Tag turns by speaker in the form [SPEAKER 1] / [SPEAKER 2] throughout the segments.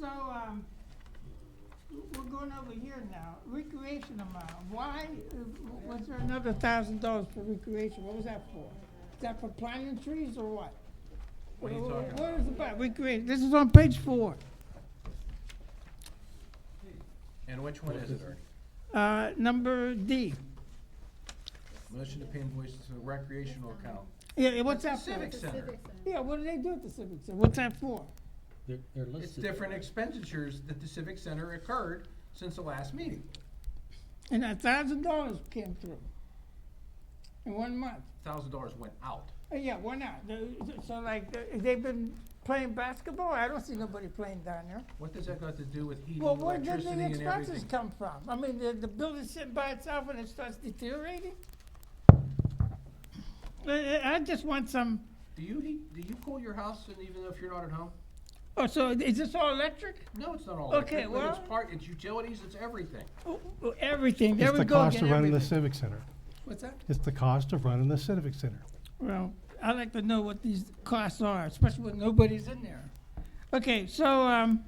[SPEAKER 1] So, um, we're going over here now, recreation amount, why, uh, w- was there another thousand dollars for recreation, what was that for? Is that for planting trees or what?
[SPEAKER 2] What are you talking
[SPEAKER 1] What is it about, recreation, this is on page four,
[SPEAKER 2] And which one is it, Ernie?
[SPEAKER 1] uh, number D,
[SPEAKER 2] Motion to pay invoices to the recreational account.
[SPEAKER 1] yeah, what's that for?
[SPEAKER 2] Civic Center.
[SPEAKER 1] Yeah, what do they do at the civic center, what's that for?
[SPEAKER 3] They're, they're
[SPEAKER 2] It's
[SPEAKER 3] listed.
[SPEAKER 2] different expenditures that the civic center occurred since the last meeting.
[SPEAKER 1] And a thousand dollars came through in one month.
[SPEAKER 2] Thousand dollars went out.
[SPEAKER 1] Uh, Yeah, why not? The- So like, uh, they've been playing basketball? I don't see nobody playing down there.
[SPEAKER 2] What does that got to do with heating,
[SPEAKER 1] Well, where
[SPEAKER 2] electricity, and
[SPEAKER 1] did
[SPEAKER 2] everything?
[SPEAKER 1] the expenses come from? I mean, the, the building's sitting by itself and it starts deteriorating? Uh, uh, I just want some,
[SPEAKER 2] Do you heat, do you cool your house and even if you're not at home?
[SPEAKER 1] oh, so is this all electric?
[SPEAKER 2] No, it's not all
[SPEAKER 1] Okay,
[SPEAKER 2] electric, but it's
[SPEAKER 1] well-
[SPEAKER 2] part, it's utilities, it's everything.
[SPEAKER 1] Oh, oh, Everything, there
[SPEAKER 4] It's
[SPEAKER 1] we
[SPEAKER 4] the
[SPEAKER 1] go
[SPEAKER 4] cost
[SPEAKER 1] again,
[SPEAKER 4] of running the
[SPEAKER 1] everything.
[SPEAKER 4] civic center.
[SPEAKER 2] What's that?
[SPEAKER 4] It's the cost of running the civic center.
[SPEAKER 1] Well, I'd like to know what these costs are, especially when nobody's in there. Okay, so, um,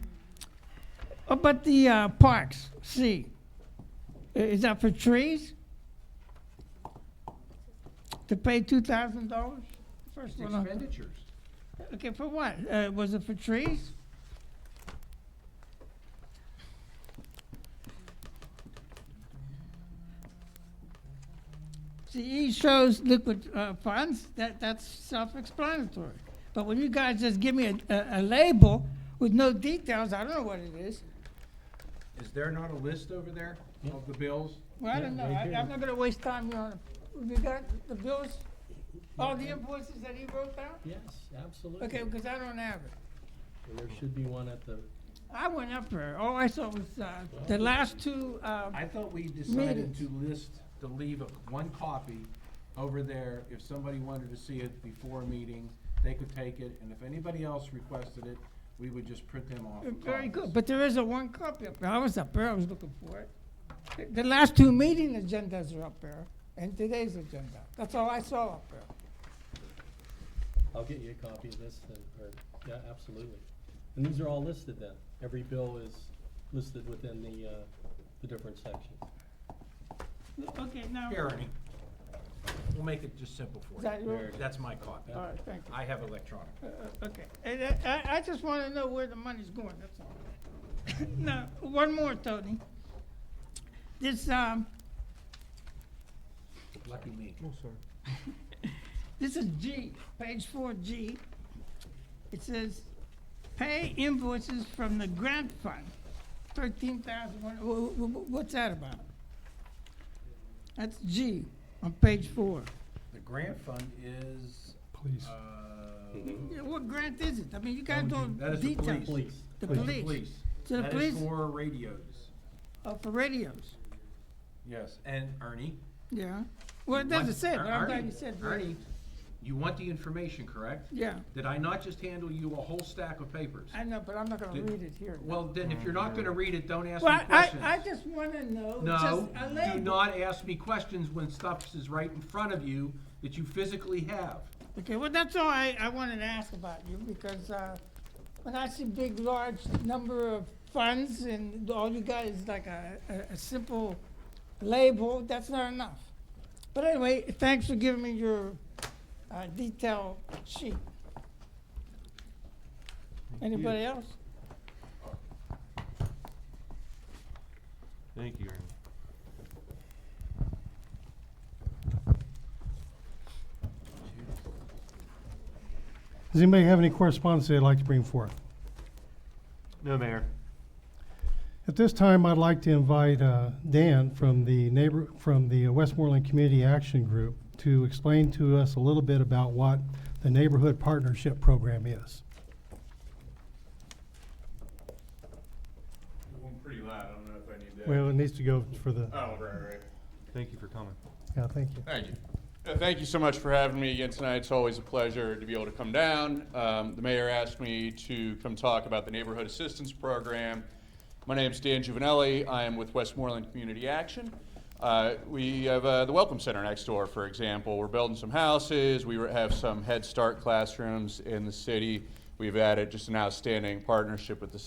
[SPEAKER 1] what about the, uh, parks, C? I- Is that for trees? To pay two thousand dollars? First
[SPEAKER 2] It's
[SPEAKER 1] one, uh,
[SPEAKER 2] expenditures.
[SPEAKER 1] okay, for what? Uh, was it for trees? See, E shows liquid uh, funds, that, that's self-explanatory. But when you guys just give me a, a, a label with no details, I don't know what it is.
[SPEAKER 2] Is there not a list over there of the bills?
[SPEAKER 1] Well, I
[SPEAKER 3] Yeah,
[SPEAKER 1] don't know,
[SPEAKER 3] right
[SPEAKER 1] I,
[SPEAKER 3] here.
[SPEAKER 1] I'm not gonna waste time, Your Honor. You got the bills, all the invoices that he wrote down?
[SPEAKER 3] Yes, absolutely.
[SPEAKER 1] Okay, because I don't have it.
[SPEAKER 3] And there should be one at the,
[SPEAKER 1] I went up there. All I saw was uh, the last two. Uh,
[SPEAKER 2] I thought we decided
[SPEAKER 1] Meetings.
[SPEAKER 2] to list, to leave a- one copy over there. If somebody wanted to see it before a meeting, they could take it, and if anybody else requested it, we would just print them off. in
[SPEAKER 1] very
[SPEAKER 2] copies.
[SPEAKER 1] good, but there is a one copy up there. I was up there. I was looking for it. The- The last two meeting agendas are up there, and today's agenda. That's all I saw up there.
[SPEAKER 3] I'll get you a copy of this and, or, yeah, absolutely. And these are all listed then. Every bill is listed within the, uh, the different sections.
[SPEAKER 1] Okay, now.
[SPEAKER 2] Here, Ernie, we'll make it just simple for
[SPEAKER 1] Is
[SPEAKER 2] you.
[SPEAKER 1] that your?
[SPEAKER 3] There it
[SPEAKER 2] That's my copy.
[SPEAKER 1] All right, thank you.
[SPEAKER 2] I have electronic.
[SPEAKER 1] Uh, uh, okay, and I, I, I just want to know where the money's going. That's all. now, one more, Tony. This um,
[SPEAKER 2] Lucky me.
[SPEAKER 1] This is G, page four G. It says, pay invoices from the grant fund, thirteen thousand, what's that about? That's G on page four.
[SPEAKER 2] The grant fund is,
[SPEAKER 4] Please.
[SPEAKER 2] uh.
[SPEAKER 1] Yeah, What grant is it? I mean, you guys don't
[SPEAKER 2] That is the
[SPEAKER 1] details.
[SPEAKER 3] Please,
[SPEAKER 1] The
[SPEAKER 2] Police,
[SPEAKER 1] police, So the
[SPEAKER 2] That
[SPEAKER 1] police-
[SPEAKER 2] is for radios,
[SPEAKER 1] oh, for radios,
[SPEAKER 2] yes, and Ernie.
[SPEAKER 1] yeah. Well, it
[SPEAKER 2] you want-
[SPEAKER 1] doesn't say, it, but I'm
[SPEAKER 2] Ernie,
[SPEAKER 1] glad you said
[SPEAKER 2] Ernie,
[SPEAKER 1] radios.
[SPEAKER 2] you want the information, correct?
[SPEAKER 1] Yeah,
[SPEAKER 2] Did I not just handle you a whole stack of papers?
[SPEAKER 1] I know, but I'm not gonna
[SPEAKER 2] Did-
[SPEAKER 1] read it here.
[SPEAKER 2] Well, then, if you're not gonna read it, don't ask
[SPEAKER 1] Well,
[SPEAKER 2] me
[SPEAKER 1] I,
[SPEAKER 2] questions.
[SPEAKER 1] I just wanna know,
[SPEAKER 2] No,
[SPEAKER 1] just a
[SPEAKER 2] do
[SPEAKER 1] label.
[SPEAKER 2] not ask me questions when stuff is right in front of you that you physically have.
[SPEAKER 1] Okay, well, that's all I, I wanted to ask about you, because, uh, when I see big, large number of funds and all you got is like a, a, a simple label, that's not enough. But anyway, thanks for giving me your, uh, detailed sheet. Anybody else?
[SPEAKER 5] Thank you, Ernie.
[SPEAKER 4] Does anybody have any correspondence they'd like to bring forth?
[SPEAKER 5] No, Mayor.
[SPEAKER 4] At this time, I'd like to invite uh, Dan from the neighbor, from the Westmoreland Community Action Group to explain to us a little bit about what the Neighborhood Partnership Program is.
[SPEAKER 6] One pretty loud, I don't know if I need that.
[SPEAKER 4] Well, it needs to go for the,
[SPEAKER 6] Oh, right, right.
[SPEAKER 5] Thank you for coming.
[SPEAKER 4] yeah, thank you.
[SPEAKER 6] Thank you. Uh, Thank you so much for having me again tonight. It's always a pleasure to be able to come down. Um, The mayor asked me to come talk about the Neighborhood Assistance Program. My name's Dan Juvenelli. I am with Westmoreland Community Action. Uh, We have uh, the Welcome Center next door, for example. We're building some houses. We have some Head Start classrooms in the city. We've added just an outstanding partnership with the